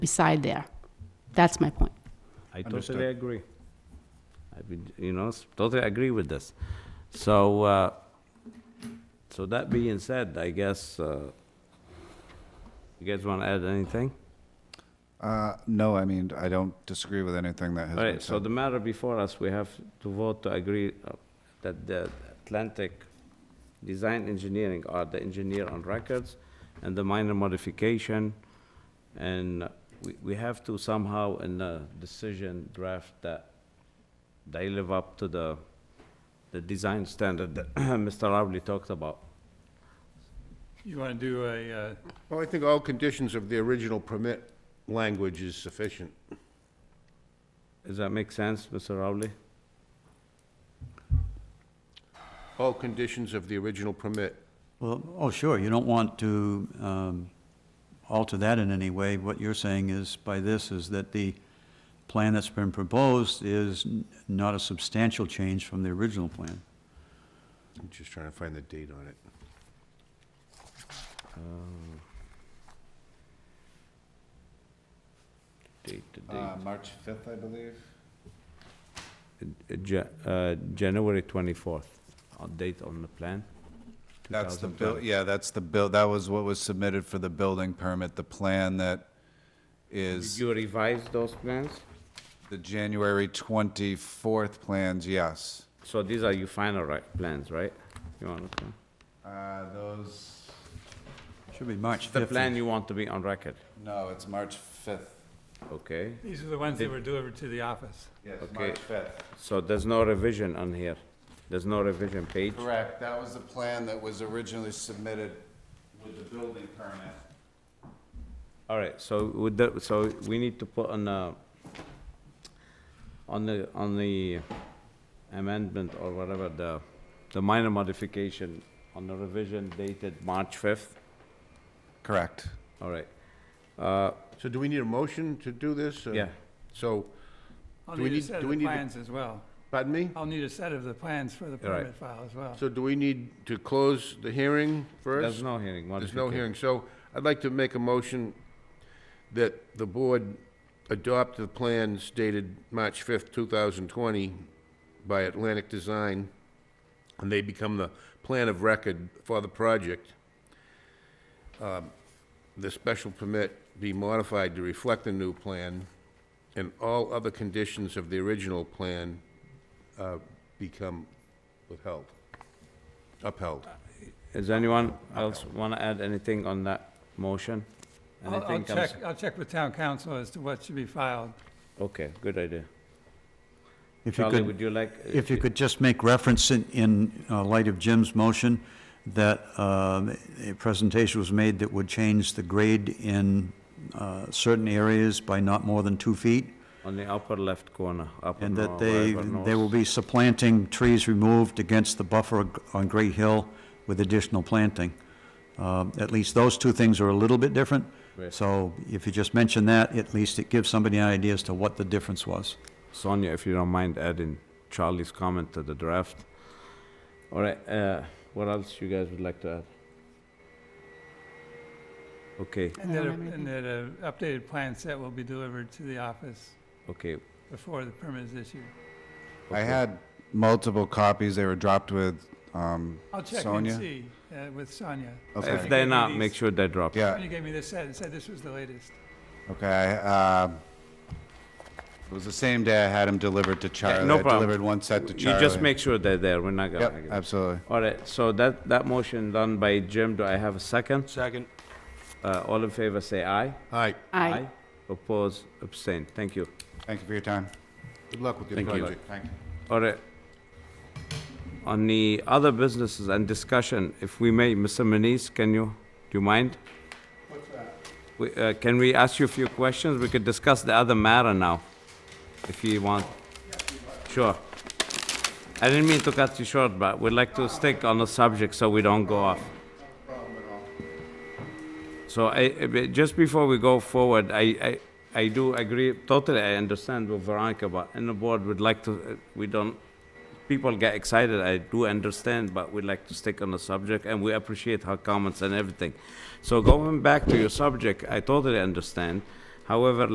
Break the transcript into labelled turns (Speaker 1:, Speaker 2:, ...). Speaker 1: beside there. That's my point.
Speaker 2: I
Speaker 3: Understood.
Speaker 2: totally agree. I mean, you know, s- totally agree with this. So, uh, so that being said, I guess, uh, you guys want to add anything?
Speaker 3: Uh, no, I mean, I don't disagree with anything that has
Speaker 2: All
Speaker 3: been
Speaker 2: right, so
Speaker 3: said.
Speaker 2: the matter before us, we have to vote to agree uh, that the Atlantic Design Engineering are the engineer on records and the minor modification. And we, we have to somehow in the decision draft that they live up to the, the design standard that Mr. Rowley talked about.
Speaker 4: You want to do a, uh,
Speaker 5: Well, I think all conditions of the original permit language is sufficient.
Speaker 2: Does that make sense, Mr. Rowley?
Speaker 5: All conditions of the original permit.
Speaker 6: Well, oh, sure, you don't want to um, alter that in any way. What you're saying is, by this, is that the plan that's been proposed is n- not a substantial change from the original plan.
Speaker 5: I'm just trying to find the date on it.
Speaker 3: Uh,
Speaker 2: Date to date.
Speaker 3: Uh, March fifth, I believe.
Speaker 2: Uh, Ja- uh, January 24th, uh, date on the plan.
Speaker 3: That's the bill,
Speaker 2: 2012.
Speaker 3: yeah, that's the bill, that was what was submitted for the building permit, the plan that
Speaker 2: Did
Speaker 3: is
Speaker 2: you revise those plans?
Speaker 3: the January twenty-fourth plans, yes.
Speaker 2: So these are your final right, plans, right? You want, okay.
Speaker 3: Uh, those,
Speaker 6: Should be March 5th.
Speaker 2: The plan you want to be on record,
Speaker 3: no, it's March fifth,
Speaker 2: okay?
Speaker 4: these are the ones that were delivered to the office.
Speaker 3: yes,
Speaker 2: Okay.
Speaker 3: March fifth.
Speaker 2: So there's no revision on here? There's no revision page?
Speaker 3: Correct, that was the plan that was originally submitted with the building permit.
Speaker 2: All right, so with the, so we need to put on the, on the, on the amendment or whatever, the, the minor modification on the revision dated March 5th?
Speaker 3: Correct.
Speaker 2: All right,
Speaker 5: So do we need a motion to do this? or-
Speaker 2: yeah.
Speaker 5: So,
Speaker 4: I'll
Speaker 5: Do we
Speaker 4: need a
Speaker 5: need-
Speaker 4: set
Speaker 5: do
Speaker 4: of
Speaker 5: we
Speaker 4: the
Speaker 5: need to-
Speaker 4: plans as well.
Speaker 5: pardon me?
Speaker 4: I'll need a set of the plans for the
Speaker 2: All right.
Speaker 4: permit file as well.
Speaker 5: So do we need to close the hearing first?
Speaker 2: There's no hearing.
Speaker 5: There's no
Speaker 2: modification.
Speaker 5: hearing, so I'd like to make a motion that the board adopt the plans dated March 5th, 2020 by Atlantic Design, and they become the plan of record for the project. Um, The special permit be modified to reflect the new plan, and all other conditions of the original plan uh, become withheld, upheld.
Speaker 2: Does anyone else want to add anything on that motion?
Speaker 4: I'll- I'll
Speaker 2: Anything comes-
Speaker 4: check, I'll check with town council as to what should be filed.
Speaker 2: Okay, good idea.
Speaker 6: If you
Speaker 2: Charlie,
Speaker 6: could,
Speaker 2: would you like? uh,
Speaker 6: if you could just make reference in, in uh, light of Jim's motion, that um, a presentation was made that would change the grade in uh, certain areas by not more than two feet.
Speaker 2: On the upper left corner, upper
Speaker 6: And that
Speaker 2: north,
Speaker 6: they,
Speaker 2: wherever
Speaker 6: they will
Speaker 2: north.
Speaker 6: be supplanting trees removed against the buffer on Great Hill with additional planting. Um, At least those two things are a little bit different.
Speaker 2: Right.
Speaker 6: So if you just mention that, at least it gives somebody an idea as to what the difference was.
Speaker 2: Sonia, if you don't mind adding Charlie's comment to the draft. All right, uh, what else you guys would like to add? Okay,
Speaker 4: And
Speaker 1: don't
Speaker 4: that, a-
Speaker 1: have anything.
Speaker 4: and that an updated plan set will be delivered to the office
Speaker 2: okay,
Speaker 4: before the permit is issued.
Speaker 3: I had multiple copies, they were dropped with, um,
Speaker 4: I'll check and
Speaker 3: Sonia?
Speaker 4: see uh, with Sonia.
Speaker 3: okay.
Speaker 2: if they're not, make sure they drop.
Speaker 5: Uh,
Speaker 3: Yeah,
Speaker 4: Sonia gave me this set and said this was the latest.
Speaker 3: Okay, uh, it was the same day I had him delivered to Charlie.
Speaker 2: no
Speaker 3: I
Speaker 2: problem.
Speaker 3: delivered one set to
Speaker 2: You
Speaker 3: Charlie.
Speaker 2: just make sure they're there, we're not
Speaker 3: Yep,
Speaker 2: gonna.
Speaker 3: absolutely.
Speaker 2: All right, so that, that motion done by Jim, do I have a second? Second. Uh, all in favor, say aye.
Speaker 5: All right,
Speaker 1: I
Speaker 2: Oppose, abstain, thank you.
Speaker 3: Thank you for your time.
Speaker 5: good luck with your
Speaker 2: Thank you.
Speaker 5: project.
Speaker 3: Thank you.
Speaker 2: All right. On the other businesses and discussion, if we may, Mr. Manise, can you, do you mind? What's that? We, uh, can we ask you a few questions? We could discuss the other matter now, if you want. Sure. I didn't mean to cut you short, but we'd like to stick on the subject so we don't go off. So I, I- but just before we go forward, I, I, I do agree, totally, I understand with Veronica, but in the board, would like to, uh, we don't, people get excited, I do understand, but we'd like to stick on the subject, and we appreciate her comments and everything. So going back to your subject, I totally understand, However,